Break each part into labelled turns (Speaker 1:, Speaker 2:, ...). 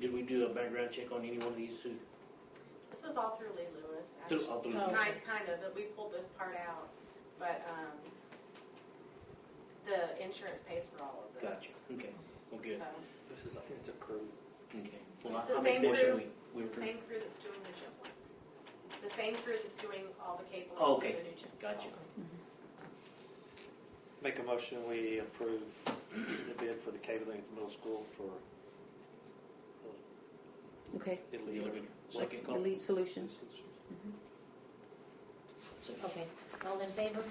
Speaker 1: Did we do a background check on any one of these who,
Speaker 2: This is all through Lee Lewis,
Speaker 1: through,
Speaker 2: actually.
Speaker 1: all through?
Speaker 3: Oh.
Speaker 2: Kind, kind of, that we pulled this part out, but, um, the insurance pays for all of
Speaker 1: Gotcha,
Speaker 2: this.
Speaker 1: okay, well, good,
Speaker 2: So,
Speaker 4: This is, I think it's approved.
Speaker 1: okay. Well,
Speaker 2: It's the
Speaker 1: I- I make
Speaker 2: same
Speaker 1: motion
Speaker 2: group.
Speaker 1: we, we
Speaker 2: it's the
Speaker 1: approve.
Speaker 2: same crew that's doing the gym one. The same crew that's doing all the cable.
Speaker 1: Oh,
Speaker 2: for
Speaker 1: okay.
Speaker 2: the new gym.
Speaker 1: Gotcha.
Speaker 4: Make a motion, we approve the bid for the cabling at the middle school for
Speaker 3: Okay,
Speaker 4: uh, Italy.
Speaker 1: You're good. Second call,
Speaker 3: Elite Solutions,
Speaker 1: second.
Speaker 5: Okay, all in favor?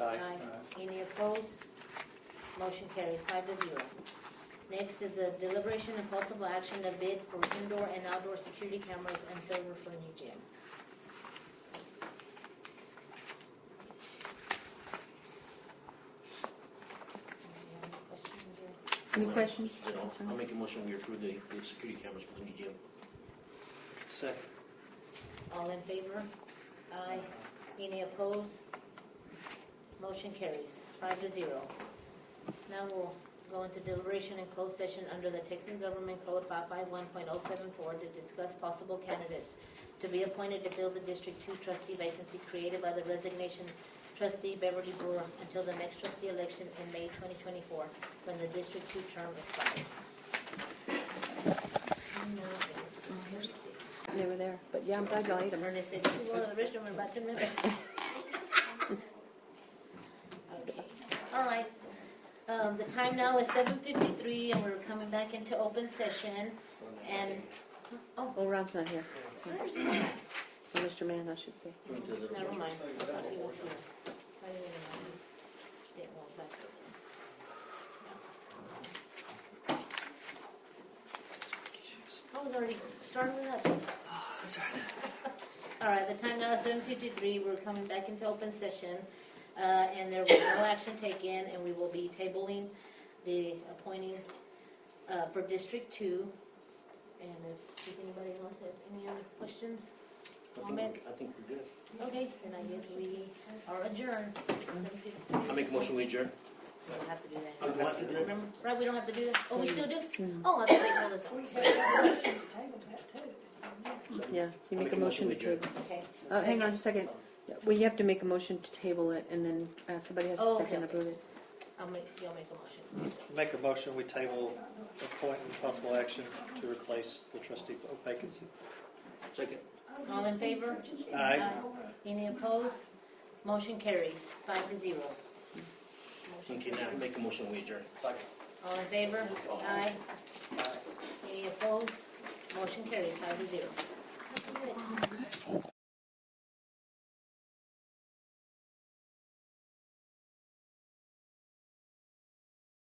Speaker 4: Aye.
Speaker 5: Any opposed? Motion carries five to zero. Next is the deliberation and possible action to bid for indoor and outdoor security cameras and server for new gym. Any other questions or-
Speaker 3: any questions?
Speaker 1: You know, I'll make a motion we approve the, the security cameras for the new gym.
Speaker 4: Second.
Speaker 5: All in favor? Aye. Any opposed? Motion carries, five to zero. Now we'll go into deliberation and closed session under the Texas Government Code five five one point oh seven four to discuss possible candidates to be appointed to fill the District Two trustee vacancy created by the resignation trustee Beverly Brewer until the next trustee election in May twenty twenty-four, when the District Two term expires. And now it's six forty-six.
Speaker 3: They were there, but yeah, I'm glad y'all ate them.
Speaker 5: Ernest said, "This is one of the restroom in about ten minutes." Okay, all right. Um, the time now is seven fifty-three, and we're coming back into open session, and, oh,
Speaker 3: Well, Ron's not here,
Speaker 5: where's he?
Speaker 3: Or Mr. Mann, I should say.
Speaker 1: Went to the-
Speaker 5: Never mind. I thought he was here. I didn't even know he didn't want back for this. I was already starting with that. All right, the time now is seven fifty-three. We're coming back into open session. Uh, and there will no action taken, and we will be tabling the appointing, uh, for District Two. And if, if anybody wants to, any other questions?
Speaker 1: I think
Speaker 5: Comments?
Speaker 1: we're- I think we're good.
Speaker 5: Okay, then I guess we are adjourned.
Speaker 1: I make a motion we adjourn.
Speaker 5: We don't have to do
Speaker 1: Oh,
Speaker 5: that.
Speaker 1: do Mm. I have to do that, remember?
Speaker 5: Right, we don't have to do that? Oh, we still do? Oh, I thought they told us.
Speaker 3: Yeah, you
Speaker 1: I'll
Speaker 3: make a motion to
Speaker 1: we adjourn.
Speaker 3: table.
Speaker 5: Okay.
Speaker 3: Uh, hang on just a second. Yeah, Well, you have to make a motion to table it, and then uh, somebody has to
Speaker 5: Oh, okay,
Speaker 3: second
Speaker 5: okay.
Speaker 3: approve it.
Speaker 5: I'll make, y'all make a motion.
Speaker 4: Make a motion, we table appointment, possible action to replace the trustee vacancy.
Speaker 1: Second.
Speaker 5: All in favor?
Speaker 4: Aye.
Speaker 5: Any opposed? Motion carries, five to zero.
Speaker 1: Okay, now make a motion we adjourn.
Speaker 5: All in favor? Aye. Any opposed? Motion carries, five to zero.